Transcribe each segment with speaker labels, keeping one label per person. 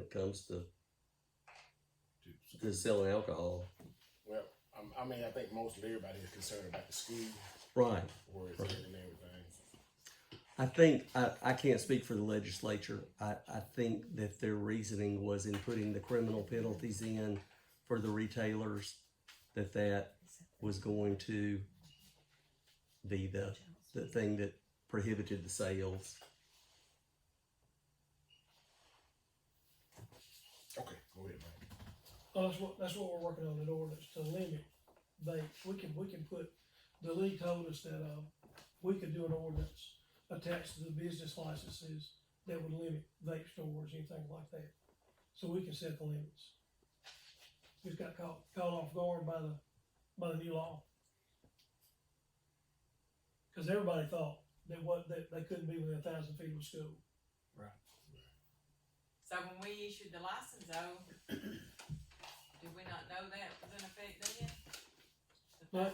Speaker 1: comes to,
Speaker 2: Dude,
Speaker 1: to selling alcohol.
Speaker 3: Well, um, I mean, I think most of everybody is concerned about the school
Speaker 1: Right.
Speaker 3: where it's at and everything.
Speaker 1: I think, I, I can't speak for the legislature. I, I think that their reasoning was in putting the criminal penalties in for the retailers, that that was going to be the, the thing that prohibited the sales.
Speaker 3: Okay, go ahead, Mike.
Speaker 4: Well, Oh, that's what, that's what we're working on, an ordinance to limit vapes, we can, we can put, the league told us that, uh, we could do an ordinance attached to the business licenses that would limit vape stores, anything like that, so we can set the limits. Just got caught, caught off guard by the, by the new law. Cause everybody thought that what, that they couldn't be within a thousand feet of a school,
Speaker 5: So when we issued the license though, did we not know that was in effect then?
Speaker 4: Right.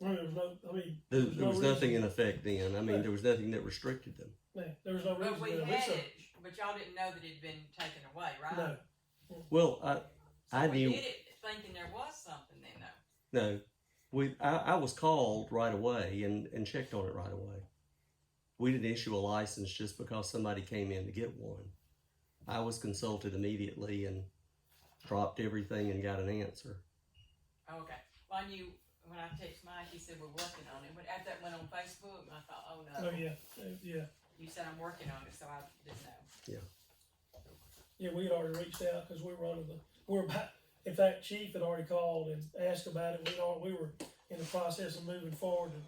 Speaker 4: I mean, there was no, I mean,
Speaker 1: There,
Speaker 4: There's
Speaker 1: there
Speaker 4: no
Speaker 1: was nothing in effect then. I mean, there was nothing that restricted them.
Speaker 4: man, there was no reason.
Speaker 5: But we
Speaker 4: to
Speaker 5: had
Speaker 4: research.
Speaker 5: it, but y'all didn't know that it'd been taken away, right?
Speaker 4: No,
Speaker 1: Well, I,
Speaker 5: So
Speaker 1: I
Speaker 5: we
Speaker 1: knew-
Speaker 5: did it thinking there was something then though.
Speaker 1: No, we. I, I was called right away and, and checked on it right away. We didn't issue a license just because somebody came in to get one. I was consulted immediately and dropped everything and got an answer.
Speaker 5: Oh, Okay, well, I knew, when I texted Mike, he said we're working on it, but after that went on Facebook, and I thought, oh
Speaker 4: oh,
Speaker 5: no.
Speaker 3: Um,
Speaker 4: yeah, yeah.
Speaker 5: You said I'm working on it, so I didn't know.
Speaker 4: Yeah, we had already reached out because we were under the, we were about, in fact, Chief had already called and asked about it. We are, we were in the process of moving forward and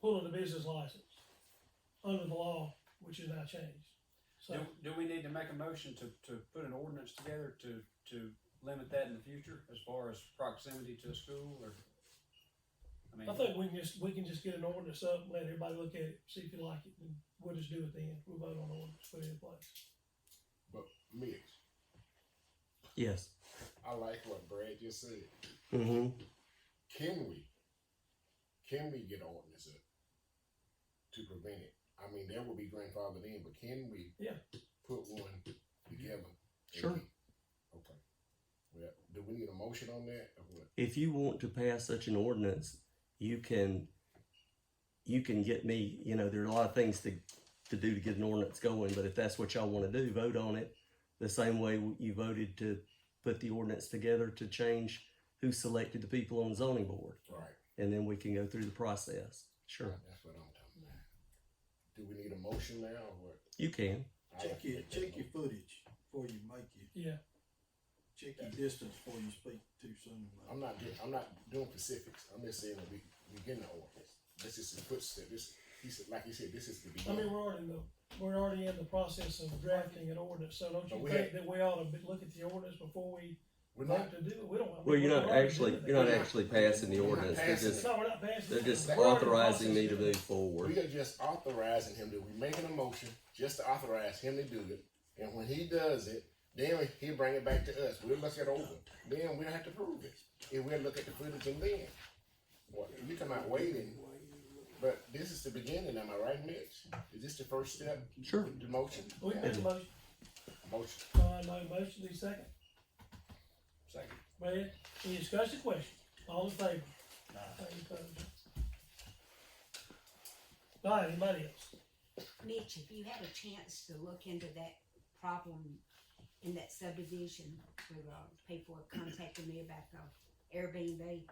Speaker 4: pulling the business license under the law, which is now changed. So,
Speaker 6: Do, do we need to make a motion to, to put an ordinance together to, to limit that in the future as far as proximity to a school or? I
Speaker 4: I
Speaker 6: mean,
Speaker 4: think we can just, we can just get an ordinance up, let everybody look at it, see if you like it, and we'll just do it then. We'll vote on the ordinance, put it in place.
Speaker 3: Mix.
Speaker 1: Yes.
Speaker 3: I like what Brad just said.
Speaker 1: Mm-hmm.
Speaker 3: Can we? Can we get an ordinance up to prevent it? I mean, that would be grandfathered in, but can we?
Speaker 4: Yeah.
Speaker 3: Put one together. and
Speaker 1: Sure.
Speaker 3: get- Okay. Well, do we need a motion on that or what?
Speaker 1: If you want to pass such an ordinance, you can. You can get me. You know, there are a lot of things to to do to get an ordinance going, but if that's what y'all want to do, vote on it the same way you voted to put the ordinance together to change who selected the people on the zoning board,
Speaker 3: Right.
Speaker 1: and then we can go through the process. Sure,
Speaker 3: That's what I'm talking about. Do we need a motion now or what?
Speaker 1: you can.
Speaker 3: I
Speaker 7: Check
Speaker 3: like to
Speaker 7: your,
Speaker 3: make that
Speaker 7: check your
Speaker 3: motion.
Speaker 7: footage before you make it,
Speaker 4: Yeah,
Speaker 7: check your distance before you speak too soon.
Speaker 3: I'm not doing, I'm not doing specifics. I'm just saying that we, we getting the ordinance. This is the footstep. This, he said, like he said, this is the
Speaker 4: I mean,
Speaker 3: beginning.
Speaker 4: we're already in the, we're already in the process of drafting an ordinance, so don't
Speaker 3: But
Speaker 4: you
Speaker 3: we
Speaker 4: think that we ought to look at the ordinance before we
Speaker 3: We're
Speaker 4: Not
Speaker 3: not,
Speaker 4: to do it, we don't. I mean,
Speaker 1: Well, you're
Speaker 4: we're
Speaker 1: not
Speaker 4: already
Speaker 1: actually
Speaker 4: doing
Speaker 1: you're not
Speaker 4: that.
Speaker 1: actually passing the ordinance. They're just
Speaker 4: No, we're not passing.
Speaker 1: they're
Speaker 4: it.
Speaker 1: just
Speaker 4: We're already in the
Speaker 1: authorizing me to
Speaker 4: process.
Speaker 1: move
Speaker 3: we
Speaker 1: forward.
Speaker 3: are just authorizing him to, we making a motion just to authorize him to do it. And when he does it, then he bring it back to us. We'll look it over. Then we'll have to prove it. And we'll look at the footage and then. Well, you come out waiting, but this is the beginning, am I right, Mitch? Is this the first step?
Speaker 1: Sure.
Speaker 3: The motion?
Speaker 4: We made a motion,
Speaker 3: Motion.
Speaker 4: Brian made a motion, need a second.
Speaker 6: second.
Speaker 4: Brad, any discussion, question? All in favor? Any opposed? All right, anybody else?
Speaker 8: Mitch, if you had a chance to look into that problem in that subdivision where uh, people were contacting me about the Airbnb,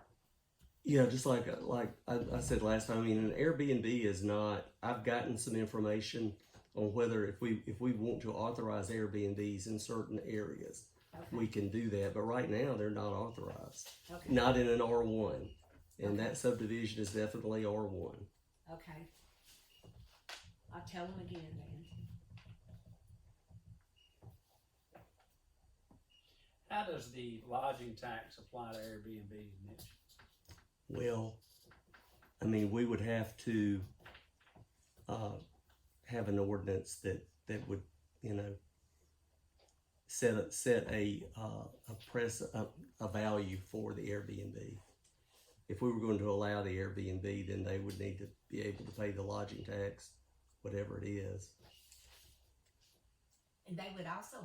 Speaker 1: Yeah, just like like I, I said last time. I mean, an Airbnb is not. I've gotten some information on whether if we if we want to authorize Airbnbs in certain areas, we
Speaker 8: okay,
Speaker 1: can do that. But right now, they're not authorized.
Speaker 8: okay,
Speaker 1: Not in an R one, and that subdivision is definitely R one.
Speaker 8: okay. I'll tell them again then.
Speaker 6: How does the lodging tax apply to Airbnb, Mitch?
Speaker 1: Well, I mean, we would have to uh, have an ordinance that, that would, you know, set a, set a, uh, a press, a, a value for the Airbnb. If we were going to allow the Airbnb, then they would need to be able to pay the lodging tax, whatever it is.
Speaker 8: And they would also